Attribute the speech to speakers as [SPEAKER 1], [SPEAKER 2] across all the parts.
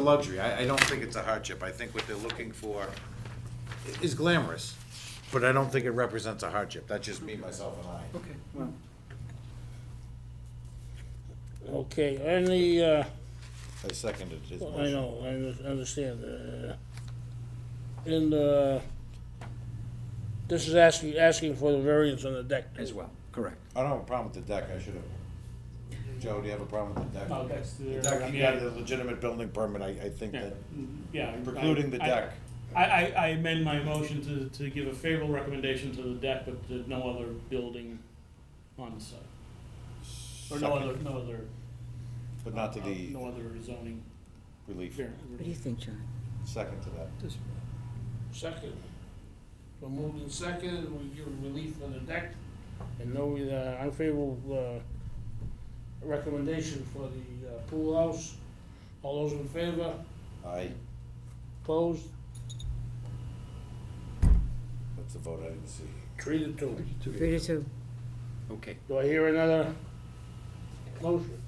[SPEAKER 1] a luxury. I, I don't think it's a hardship. I think what they're looking for i- is glamorous, but I don't think it represents a hardship. That's just me, myself, and I.
[SPEAKER 2] Okay, well,
[SPEAKER 3] Okay, and the, uh,
[SPEAKER 1] I seconded his
[SPEAKER 3] well, I know, I un- understand, uh, and, uh, this is asking, asking for the variance on the deck. too.
[SPEAKER 2] as well, correct.
[SPEAKER 1] I don't have a problem with the deck. I should have. Joe, do you have a problem with the deck?
[SPEAKER 4] Oh, that's the-
[SPEAKER 1] The deck, he
[SPEAKER 4] yeah.
[SPEAKER 1] got a legitimate building permit. I, I think
[SPEAKER 4] Yeah.
[SPEAKER 1] that
[SPEAKER 4] Yeah. I-
[SPEAKER 1] precluding the
[SPEAKER 4] I-
[SPEAKER 1] deck.
[SPEAKER 4] I, I, I amend my motion to, to give a favorable recommendation to the deck, but to no other building on the site. Or no
[SPEAKER 1] Second.
[SPEAKER 4] other, no other.
[SPEAKER 1] But not to
[SPEAKER 4] uh,
[SPEAKER 1] the
[SPEAKER 4] No other zoning.
[SPEAKER 1] relief.
[SPEAKER 5] What do you think, John?
[SPEAKER 1] Second to that.
[SPEAKER 3] Second. We're moved in second, we give relief on the deck. And no uh, unfavorable uh, recommendation for the uh, pool house. All those in favor?
[SPEAKER 1] Aye.
[SPEAKER 3] Opposed?
[SPEAKER 1] That's the vote I didn't see.
[SPEAKER 3] Three to two.
[SPEAKER 5] Three to two.
[SPEAKER 2] Okay,
[SPEAKER 3] Do I hear another motion?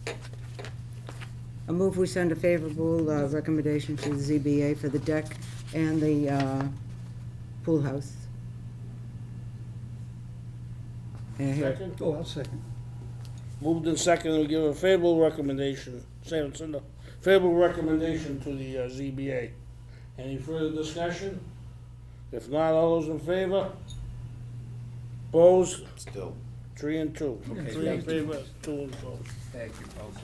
[SPEAKER 5] A move we send a favorable uh, recommendation to the ZBA for the deck and the uh, pool house. And I hear-
[SPEAKER 3] Second?
[SPEAKER 2] Oh, I'll second.
[SPEAKER 3] Moved in second, we give a favorable recommendation, same, send a favorable recommendation to the uh, ZBA. Any further discussion? If not, all those in favor? Opposed?
[SPEAKER 1] Still.
[SPEAKER 3] Three and two.
[SPEAKER 2] Okay,
[SPEAKER 3] Three in
[SPEAKER 2] thank you.
[SPEAKER 3] favor, two and opposed.
[SPEAKER 2] Thank you, folks.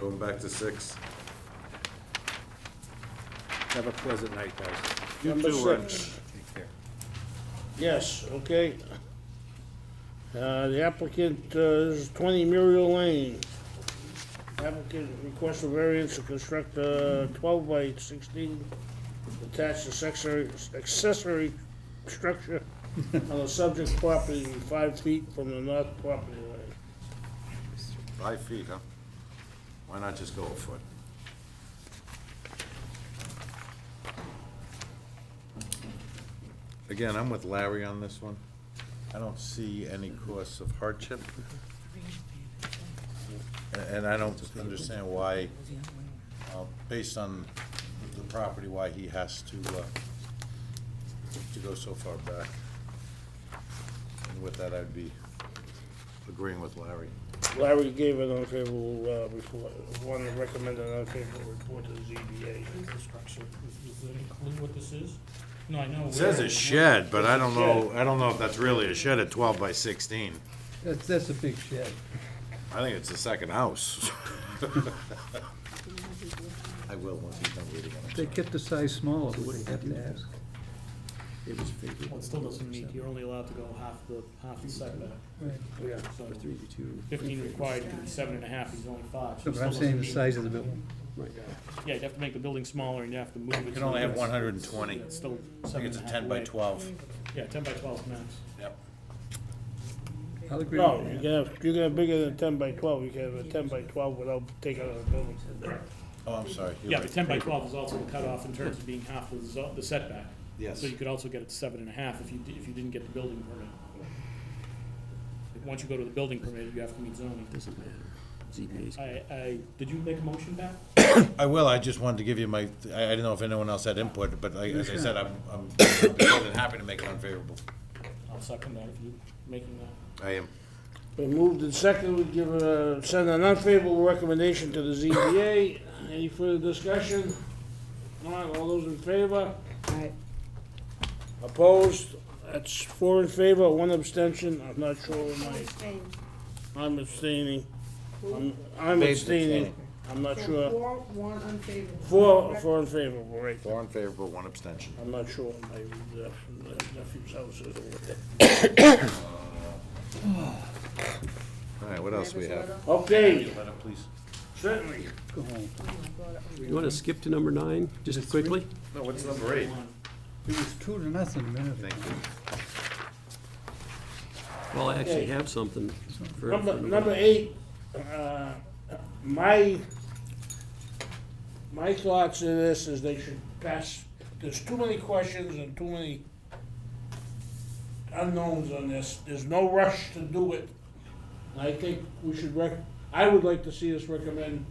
[SPEAKER 1] Going back to six.
[SPEAKER 2] Have a pleasant night, guys.
[SPEAKER 3] Number
[SPEAKER 1] too, Ron.
[SPEAKER 3] six.
[SPEAKER 2] Take care.
[SPEAKER 3] Yes, okay. Uh, the applicant uh, is twenty Muriel Lane. Applicant requests a variance to construct a twelve by sixteen attached accessory, accessory structure on the subject property five feet from the north property line.
[SPEAKER 1] Five feet, huh? Why not just go a foot? Again, I'm with Larry on this one. I don't see any cause of hardship. A- And I don't understand why, uh, based on the property, why he has to, uh, to go so far back. And with that, I'd be agreeing with Larry.
[SPEAKER 3] Larry gave an unfavorable, uh, report, wanted to recommend an unfavorable report to the ZBA.
[SPEAKER 4] Infrastructure, does that include what this is? No, I know.
[SPEAKER 1] It says
[SPEAKER 4] where-
[SPEAKER 1] a shed, but I don't
[SPEAKER 3] It's a
[SPEAKER 1] know, I don't know if that's really a shed at twelve by sixteen.
[SPEAKER 6] That's, that's a big shed.
[SPEAKER 1] I think it's the second house. I will, once he's done reading it.
[SPEAKER 6] They kept the size smaller, would they have to ask?
[SPEAKER 4] Well, it still doesn't meet, you're only allowed to go half the, half the setback.
[SPEAKER 6] Right.
[SPEAKER 3] Yeah.
[SPEAKER 4] So fifteen required, could be seven and a half, he's only five. so
[SPEAKER 6] No,
[SPEAKER 4] it
[SPEAKER 6] But
[SPEAKER 4] still
[SPEAKER 6] I'm saying
[SPEAKER 4] doesn't
[SPEAKER 6] the
[SPEAKER 4] meet-
[SPEAKER 6] size of the building.
[SPEAKER 4] Yeah, you'd have to make the building smaller and you have to move it.
[SPEAKER 1] You can only have
[SPEAKER 4] so
[SPEAKER 1] one hundred and twenty.
[SPEAKER 4] It's still
[SPEAKER 1] I
[SPEAKER 4] seven
[SPEAKER 1] think
[SPEAKER 4] and
[SPEAKER 1] it's
[SPEAKER 4] a
[SPEAKER 1] a
[SPEAKER 4] half
[SPEAKER 1] ten by
[SPEAKER 4] away.
[SPEAKER 1] twelve.
[SPEAKER 4] Yeah, ten by twelve max.
[SPEAKER 1] Yep.
[SPEAKER 6] I'll agree
[SPEAKER 3] No,
[SPEAKER 6] with
[SPEAKER 3] you
[SPEAKER 6] that.
[SPEAKER 3] can have, you can have bigger than ten by twelve, you can have a ten by twelve without taking out the building.
[SPEAKER 1] Oh, I'm sorry. you're
[SPEAKER 4] Yeah, the
[SPEAKER 1] right.
[SPEAKER 4] ten by twelve is also cut off in terms of being half the zo- the setback.
[SPEAKER 1] Yes.
[SPEAKER 4] So you could also get it to seven and a half if you, di- if you didn't get the building permit. Once you go to the building permit, you have to meet zoning. Doesn't matter. I, I, did you make a motion back?
[SPEAKER 1] I will, I just wanted to give you my, I, I didn't know if anyone else had input, but I, as I said, I'm, I'm more than happy to make it unfavorable.
[SPEAKER 4] I'll second that if you making that.
[SPEAKER 1] I am.
[SPEAKER 3] We moved in second, we give a, send an unfavorable recommendation to the ZBA. Any further discussion? Not, all those in favor?
[SPEAKER 5] all right.
[SPEAKER 3] Opposed? That's four in favor, one abstention, I'm not sure what my, I'm abstaining. I'm- I'm
[SPEAKER 1] Dave's
[SPEAKER 3] abstaining,
[SPEAKER 1] abstaining.
[SPEAKER 3] I'm not sure.
[SPEAKER 7] Four, one unfavorable.
[SPEAKER 3] Four, four in favor, right.
[SPEAKER 1] Four in favor, one abstention.
[SPEAKER 3] I'm not sure what my uh, nephew's house is over there.
[SPEAKER 1] All right, what else we have?
[SPEAKER 3] Okay,
[SPEAKER 1] Let it please.
[SPEAKER 3] certainly.
[SPEAKER 6] Go home.
[SPEAKER 8] You want to skip to number nine, just quickly?
[SPEAKER 1] No, what's number eight?
[SPEAKER 6] It was two to nothing a minute ago.
[SPEAKER 1] Thank you.
[SPEAKER 8] Well, I actually have something for.
[SPEAKER 3] Number,
[SPEAKER 8] for
[SPEAKER 3] number eight, uh, my, my thoughts of this is they should pass, there's too many questions and too many unknowns on this, there's no rush to do it. And I think we should rec, I would like to see us recommend